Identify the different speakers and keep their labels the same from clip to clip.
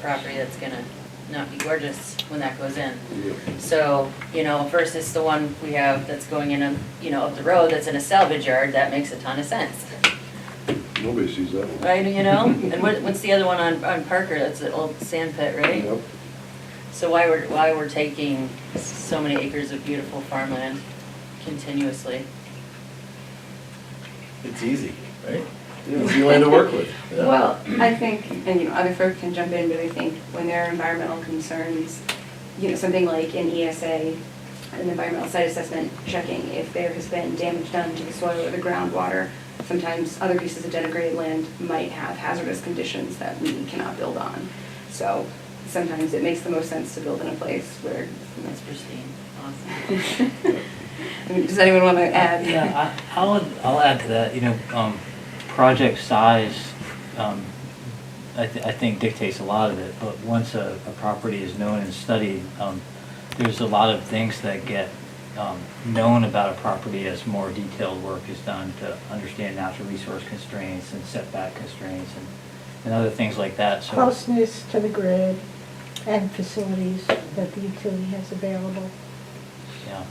Speaker 1: property that's gonna not be gorgeous when that goes in.
Speaker 2: Yeah.
Speaker 1: So, you know, versus the one we have that's going in, a you know, up the road that's in a salvage yard, that makes a ton of sense,
Speaker 2: Nobody sees that one.
Speaker 1: right, you know? And what, what's the other one on, on Parker, that's the old sand pit, right?
Speaker 2: Yep.
Speaker 1: So why we're, why we're taking so many acres of beautiful farmland continuously?
Speaker 3: It's easy, right?
Speaker 2: Yeah.
Speaker 3: Easy land to work with. Yeah.
Speaker 4: Well, I think, and you know, other folk can jump in, but I think when there are environmental concerns, you know, something like an ESA, an environmental site assessment, checking if there has been damage done to the soil or the groundwater. Sometimes other pieces of denigrated land might have hazardous conditions that we cannot build on. So sometimes it makes the most sense to build in a place where,
Speaker 1: That's pristine, awesome.
Speaker 4: I mean, does anyone want to add?
Speaker 5: Yeah, I, I'll, I'll add to that, you know, um, project size, um, I, th- I think dictates a lot of it, but once a, a property is known and studied, um, there's a lot of things that get, um, known about a property as more detailed work is done to understand natural resource constraints and setback constraints and, and other things like that, so.
Speaker 6: Closeness to the grid and facilities that the utility has available.
Speaker 5: Yeah.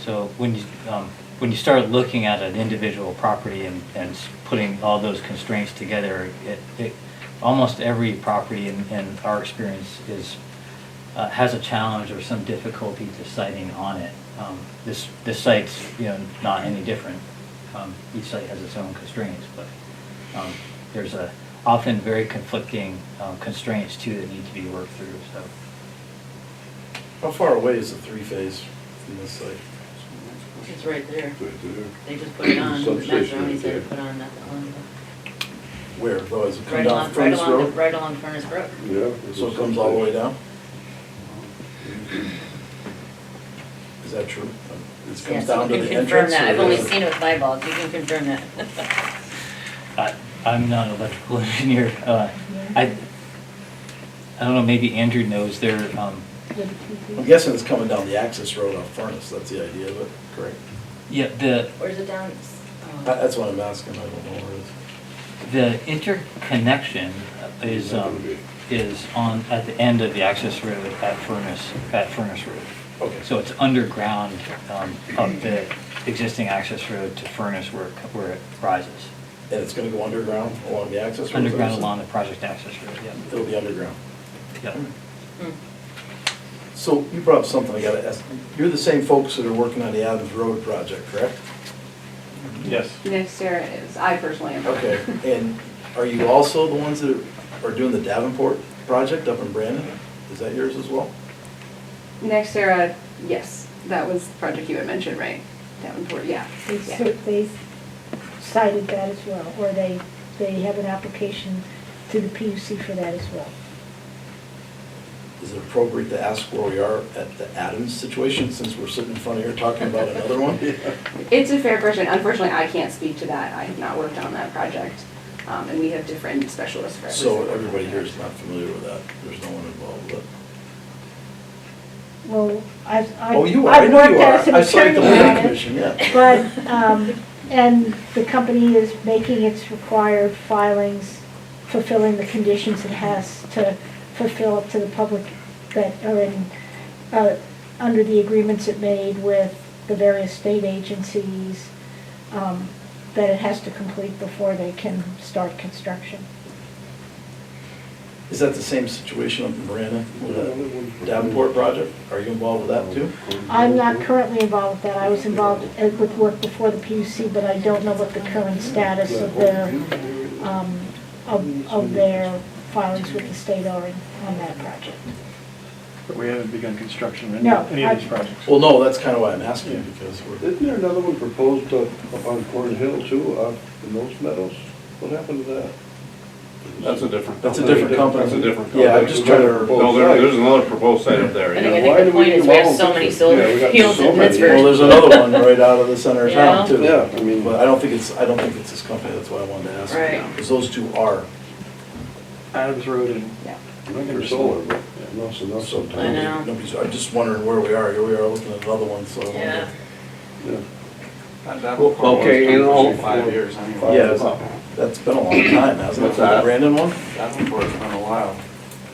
Speaker 5: So when you, um, when you start looking at an individual property and, and s- putting all those constraints together, it, it, almost every property in, in our experience is, uh, has a challenge or some difficulty deciding on it. Um, this, this site's, you know, not any different. Um, each site has its own constraints, but, um, there's a, often very conflicting, um, constraints too that need to be worked through, so.
Speaker 3: How far away is the three-phase from this site?
Speaker 1: It's right there.
Speaker 2: Right there.
Speaker 1: They just put it on, the
Speaker 2: Substation
Speaker 1: Mazzaroni
Speaker 2: right
Speaker 1: said
Speaker 2: there.
Speaker 1: to put on that one.
Speaker 3: Where, though, is it come
Speaker 1: Right
Speaker 3: down
Speaker 1: along,
Speaker 3: from
Speaker 1: right
Speaker 3: this
Speaker 1: along, the-
Speaker 3: road?
Speaker 1: right along Furnace Brook.
Speaker 2: Yeah. it's
Speaker 3: So
Speaker 2: a
Speaker 3: it comes all the way
Speaker 2: substation.
Speaker 3: down? Is that true? It
Speaker 1: Yeah,
Speaker 3: comes down
Speaker 1: someone
Speaker 3: to
Speaker 1: can
Speaker 3: the
Speaker 1: confirm
Speaker 3: entrance?
Speaker 1: that. I've
Speaker 3: or
Speaker 1: only
Speaker 3: is
Speaker 1: seen it with my balls, you can confirm that.
Speaker 5: I, I'm not an electrical engineer. Uh, I, I don't know, maybe Andrew knows their, um,
Speaker 3: I'm guessing it's coming down the access road off Furnace, that's the idea of it, correct?
Speaker 5: yeah, the,
Speaker 1: Where's it down?
Speaker 3: That-
Speaker 1: Oh.
Speaker 3: That's what I'm asking, I don't know where it is.
Speaker 5: the interconnection is, um, is on, at the end of the access road at Furnace, at Furnace Road.
Speaker 3: Okay.
Speaker 5: So it's underground, um, of the existing access road to Furnace where, it co- where it rises.
Speaker 3: And it's gonna go underground along the access road?
Speaker 5: Underground along the project access road, yeah,
Speaker 3: It'll be underground.
Speaker 5: yeah.
Speaker 1: Hmm.
Speaker 3: So you brought up something I gotta ask. You're the same folks that are working on the Adams Road project, correct?
Speaker 7: Yes.
Speaker 4: Next year is, I personally am.
Speaker 3: Okay, and are you also the ones that are doing the Davenport project up in Brandon? Is that yours as well?
Speaker 4: Next era, yes, that was the project you had mentioned, right? Davenport, yeah.
Speaker 6: They
Speaker 4: yeah.
Speaker 6: cer- They cited that as well, or they, they have an application to the PUC for that as well.
Speaker 3: Is it appropriate to ask where we are at the Adams situation since we're sitting in front of here talking about another one?
Speaker 4: It's a fair question. Unfortunately, I can't speak to that. I have not worked on that project. Um, and we have different specialists for every
Speaker 3: So
Speaker 4: single
Speaker 3: everybody here is
Speaker 4: project.
Speaker 3: not familiar with that. There's no one involved with it.
Speaker 6: Well, I've, I've.
Speaker 3: Oh, you are, I
Speaker 6: I've
Speaker 3: know you
Speaker 6: worked
Speaker 3: are.
Speaker 6: as an
Speaker 3: I saw you at the
Speaker 6: attorney on
Speaker 3: planning
Speaker 6: it.
Speaker 3: commission, yeah.
Speaker 6: But, um, and the company is making its required filings, fulfilling the conditions it has to fulfill up to the public that are in, uh, under the agreements it made with the various state agencies, um, that it has to complete before they can start construction.
Speaker 3: Is that the same situation up in Brandon with
Speaker 2: Yeah, that
Speaker 3: the
Speaker 2: one.
Speaker 3: Davenport project? Are you involved with that too?
Speaker 6: I'm not currently involved with that. I was involved uh, with work before the PUC, but I don't know what the current status of their um, of, of their filings with the state are in- on that project.
Speaker 7: But we haven't begun construction of any,
Speaker 6: No,
Speaker 7: any of these
Speaker 6: I-
Speaker 7: projects.
Speaker 3: Well, no, that's kind of why I'm asking
Speaker 7: Yeah.
Speaker 3: because we're,
Speaker 2: Isn't there another one proposed up, up on Corn Hill too, up in those meadows? What happened to that?
Speaker 7: That's a different.
Speaker 3: That's a different company.
Speaker 7: That's a different
Speaker 3: Yeah,
Speaker 7: company.
Speaker 3: I'm just trying to-
Speaker 7: No, there, there's another proposed site up there,
Speaker 1: I think,
Speaker 7: yeah.
Speaker 1: I
Speaker 2: why
Speaker 1: think the
Speaker 2: do we
Speaker 1: point
Speaker 2: do
Speaker 1: is we have
Speaker 2: all
Speaker 1: so
Speaker 2: of
Speaker 1: many
Speaker 2: this? Yeah,
Speaker 1: solar
Speaker 2: we got
Speaker 1: fields
Speaker 2: so
Speaker 1: in
Speaker 2: many.
Speaker 1: Pittsburgh.
Speaker 3: well, there's another one right out of the center of town
Speaker 1: Yeah.
Speaker 3: too.
Speaker 2: Yeah, I mean-
Speaker 3: But I don't think it's, I don't think it's this company, that's why I wanted to ask.
Speaker 1: Right.
Speaker 3: Because those two are.
Speaker 7: Adams Road and,
Speaker 4: Yeah.
Speaker 2: Not for solar, but enough's enough sometimes.
Speaker 1: I know.
Speaker 3: Nobody's, I'm just wondering where we are. Here we are looking at another one, so. I wonder.
Speaker 1: Yeah.
Speaker 2: Yeah.
Speaker 8: Okay, in all,
Speaker 2: Five
Speaker 8: years
Speaker 3: Yeah, that's- that's been a long time, hasn't it?
Speaker 8: What's that?
Speaker 3: Brandon one?
Speaker 8: Davenport's been a while.